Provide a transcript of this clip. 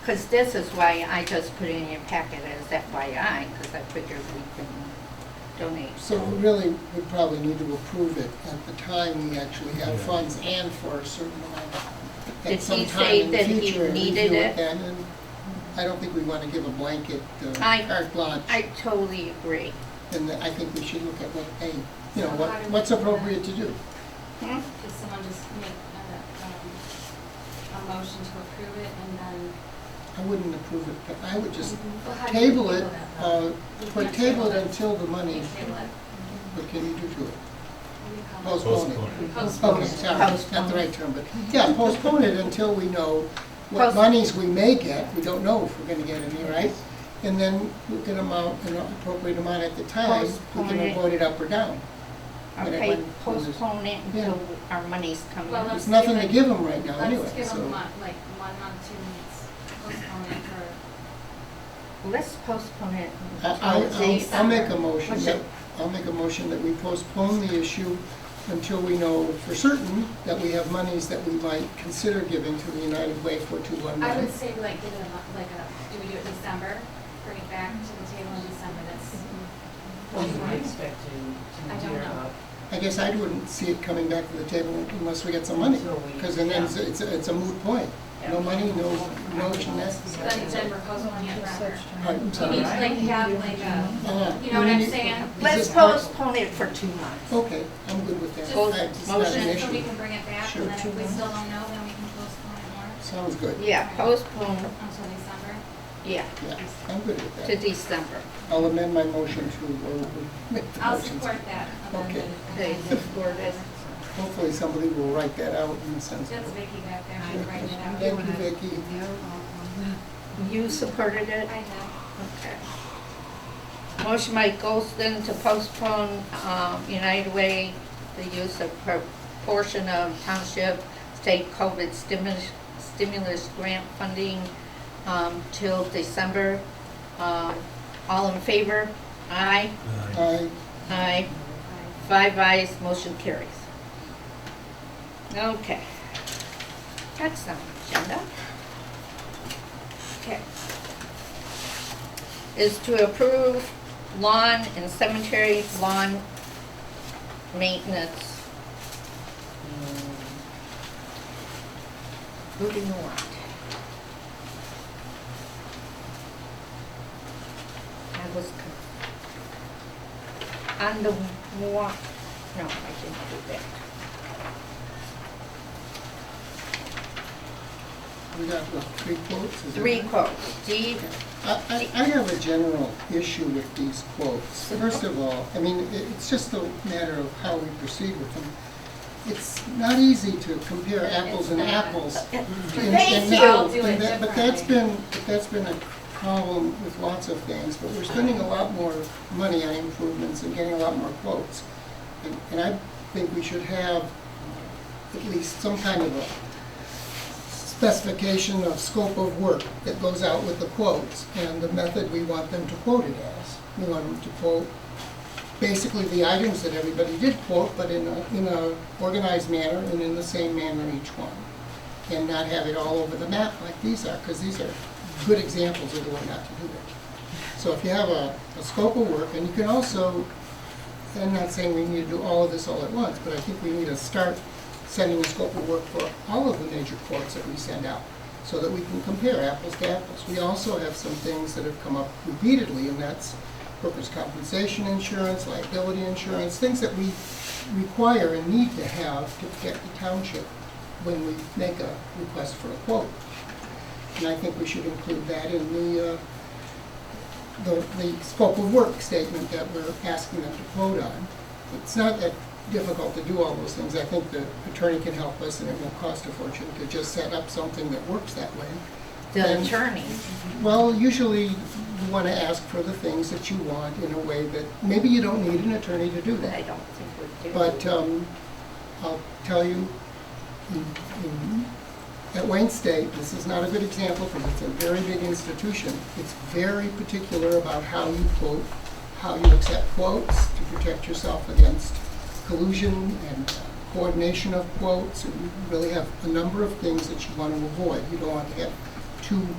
Because this is why I just put it in your packet as FYI, because I figured we can donate. So we really would probably need to approve it at the time we actually have Yeah. funds and for a certain amount. At Did he some time say in the that he future, review needed it? then, and I don't think we want to give a blanket uh, I- carte blanche. I totally agree. And I think we should look at what, hey, you know, So what, how do we what's do that? appropriate to do. Hmm? Could someone just make a, um, a motion to approve it and then? I wouldn't approve it, but I would just Well, how do you table it, that, uh, though? You but can't table it table it. until the You money, table it. what can you do to it? What do you call it? Postpone it. Postpone Postpone it, sorry, not Postpone. the right term, but, yeah, postpone it until we know what Post- monies we may get, we don't know if we're gonna get any, right? And then we can amount, an appropriate amount at the time, we Postpone it. can vote it up or down. But it Okay, went- postpone it Yeah. until our money's coming. Well, in. let's There's nothing give to it- give them right now anyway, Let's give so- them mon- like one month, two months, postpone it for, Let's postpone it. I- until I- I'll, I'll make a motion, What's that- it? I'll make a motion that we postpone the issue until we know for certain that we have monies that we might consider giving to the United Way for two one I would nine. say like give it a, month, like a, do we do it in December? Bring it back to the table in December, that's. What am I expecting I to don't hear know. about? I guess I wouldn't see it coming back to the table unless we get some money, Until we- because then it's, it's a- it's a moot point. No Yeah. money, no, no necessity. Then, then we're postponing it forever. I'm You sorry. need to like have like a, Uh, you know what I'm we need- saying? is Oh. Let's this part- postpone it for two months. Okay, I'm good with that. Just- I- It's not an just so we issue. can bring it back Sure. and then Two if we months. still don't know, then we can postpone it more Sounds good. Yeah, postpone, until December. yeah, Yeah, I'm good with to that. December. I'll amend my motion to, uh, make the I'll motion. support that amended. Okay. Okay, amended. support it. Hopefully somebody will write that out and send it. That's Vicky back there, she's writing it out. Thank you, Vicki. You supported it? I have. Okay. Motion by Goldston to postpone um, United Way, the use of per- portion of township state COVID stimulus, stimulus grant funding um, till December. Um, All in favor? Aye. Uh, Aye. Aye. Five ayes, motion carries. Okay. Next on the agenda. Okay. Is to approve lawn and cemetery lawn maintenance. Hmm. Who do you want? I was confused. On the wa, no, I didn't do that. We got, what, three quotes? is that Three right? quotes, D, I, I- I have a general issue with these quotes. First of all, I mean, it- it's just a matter of how we proceed with them. It's not easy to compare apples and not. apples. And- Thank and you. that- I'll do it and that- But that's differently. been, but that's been a problem with lots of things, but we're spending a lot more money on improvements and getting a lot more quotes. And- And I think we should have at least some kind of a specification of scope of work that goes out with the quotes and the method we want them to quote it as. We want them to quote basically the items that everybody did quote, but in a, in a organized manner and in the same manner each one. And not have it all over the map like these are, because these are good examples of the way not to do it. So if you have a, a scope of work, and you can also, and I'm not saying we need to do all of this all at once, but I think we need to start sending a scope of work for all of the major quotes that we send out, so that we can compare apples to apples. We also have some things that have come up repeatedly, and that's workers' compensation insurance, liability insurance, things that we require and need to have to protect the township when we make a request for a quote. And I think we should include that in the, uh, the, the scope of work statement that we're asking them to quote on. It's not that difficult to do all those things. I think the attorney can help us, and it won't cost a fortune to just set up something that works that way. the Then- attorney. well, usually you want to ask for the things that you want in a way that, maybe you don't need an attorney to do I that. don't think we do. But um, I'll tell you, in- in- at Wayne State, this is not a good example because it's a very big institution. It's very particular about how you quote, how you accept quotes to protect yourself against collusion and coordination of quotes. And you really have a number of things that you want to avoid. You don't want to have too